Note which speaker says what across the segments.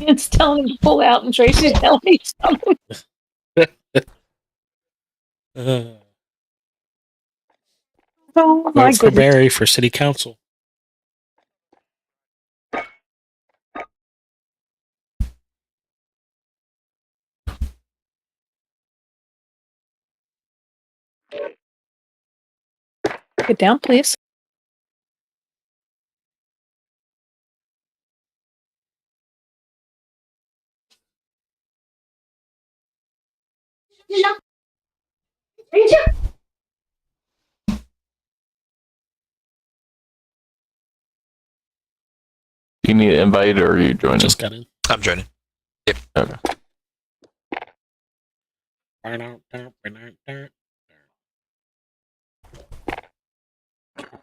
Speaker 1: It's telling me to pull out, and Tracy's telling me something.
Speaker 2: Uh,
Speaker 1: Oh my
Speaker 2: vote for
Speaker 1: goodness!
Speaker 2: Barry for city council.
Speaker 1: Get down, please.
Speaker 3: You need an invite or are you joining?
Speaker 2: Just got in.
Speaker 4: Mm-hmm. I'm joining.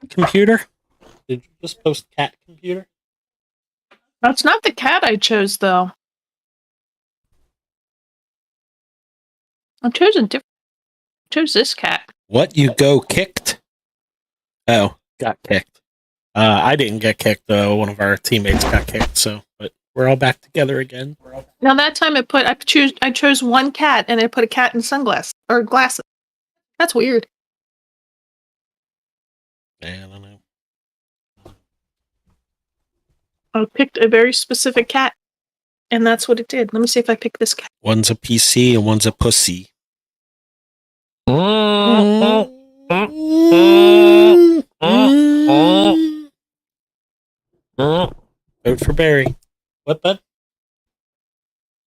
Speaker 2: Computer? Did you just post cat computer?
Speaker 1: That's not the cat I chose, though. I chose a different. Chose this cat.
Speaker 2: What you go kicked? Oh, got kicked. Uh, I didn't get kicked though. One of our teammates got kicked. So, but we're all back together again. We're all
Speaker 1: Now that time it put I choose I chose one cat and it put a cat in sunglasses or glasses. That's weird.
Speaker 2: I don't know.
Speaker 1: I picked a very specific cat, and that's what it did. Let me see if I pick this cat.
Speaker 2: One's a PC and one's a pussy. Vote Mm-hmm. for Barry. What, bud?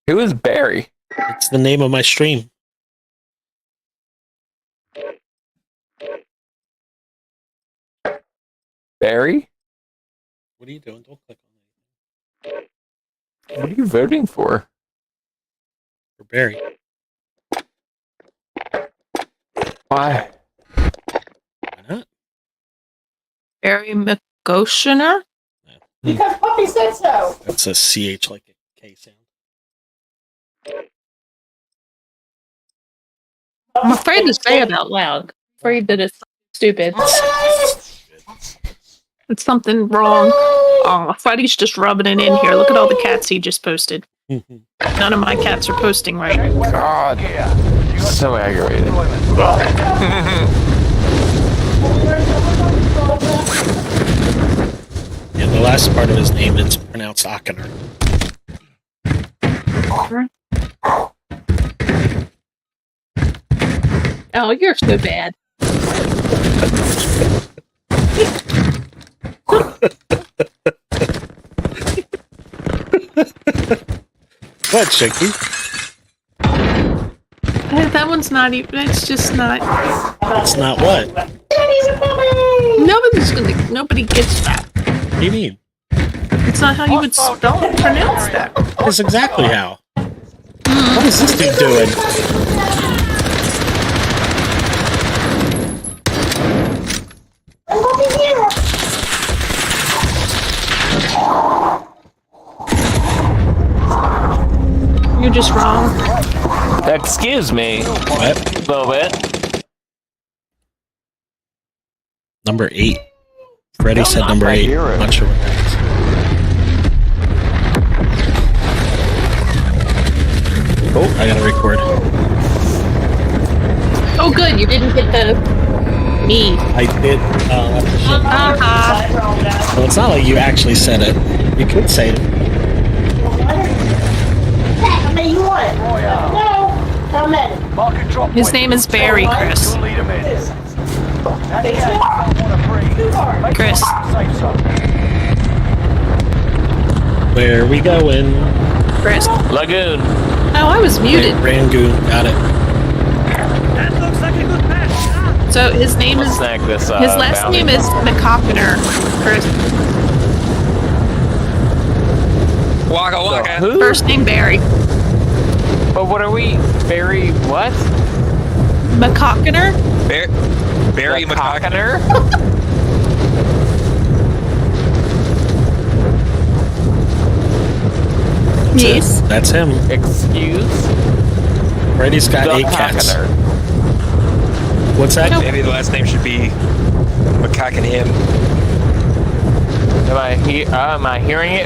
Speaker 3: Who is Barry?
Speaker 2: It's the name of my stream.
Speaker 3: Barry?
Speaker 2: What are you doing? Don't click on it.
Speaker 3: What are you voting for?
Speaker 2: For Barry.
Speaker 3: Why?
Speaker 2: Why not?
Speaker 1: Barry McGoshiner.
Speaker 5: Because Puppy said so.
Speaker 2: That's a CH like a K sound.
Speaker 1: I'm afraid to say it out loud. Afraid that it's stupid. It's something wrong. Oh, Freddy's just rubbing it in here. Look at all the cats he just posted.
Speaker 2: Mm-hmm.
Speaker 1: None of my cats are posting right.
Speaker 3: God. So aggravated.
Speaker 2: Yeah, the last part of his name is pronounced Akiner.
Speaker 1: Oh, you're so bad.
Speaker 2: What, Shaky?
Speaker 1: Eh, That one's not even. It's just not.
Speaker 2: That's not what.
Speaker 5: Daddy's a puppy!
Speaker 1: Nobody's gonna. Nobody gets that.
Speaker 2: What do you mean?
Speaker 1: It's not how you would spell pronounce that.
Speaker 2: That's exactly how. What is this dude doing?
Speaker 5: Puppy here!
Speaker 1: You're just wrong.
Speaker 3: Excuse me a
Speaker 2: What?
Speaker 3: little bit.
Speaker 2: Number eight. Freddy
Speaker 3: No,
Speaker 2: said
Speaker 3: not
Speaker 2: number
Speaker 3: my
Speaker 2: eight.
Speaker 3: hero.
Speaker 2: I'm not sure what that is. Oh, I gotta record.
Speaker 1: Oh, good. You didn't get the me.
Speaker 2: I did. Uh,
Speaker 1: Uh-huh.
Speaker 2: well, it's not like you actually said it. You could say it.
Speaker 5: How many you want? No. How many?
Speaker 1: His name is Barry, Chris. Chris.
Speaker 2: Where we going?
Speaker 1: Chris. Oh,
Speaker 3: Lagoon.
Speaker 1: I was muted.
Speaker 2: Rangoon. Got it.
Speaker 1: So his name
Speaker 3: Let's
Speaker 1: is.
Speaker 3: snag this. Uh,
Speaker 1: His last
Speaker 3: bounty.
Speaker 1: name is McCockner. Chris.
Speaker 4: Waka
Speaker 3: So,
Speaker 4: waka.
Speaker 3: who?
Speaker 1: First name Barry.
Speaker 3: But what are we? Barry what?
Speaker 1: McCockner?
Speaker 4: Bar- Barry
Speaker 3: The
Speaker 4: McCock.
Speaker 3: Cockner?
Speaker 1: Yes.
Speaker 2: That's him.
Speaker 3: Excuse?
Speaker 2: Brady's got
Speaker 3: The
Speaker 2: eight cats.
Speaker 3: Cockner.
Speaker 2: What's that?
Speaker 4: Maybe the last name should be McCock and him.
Speaker 3: Am I, he- uh, am I hearing it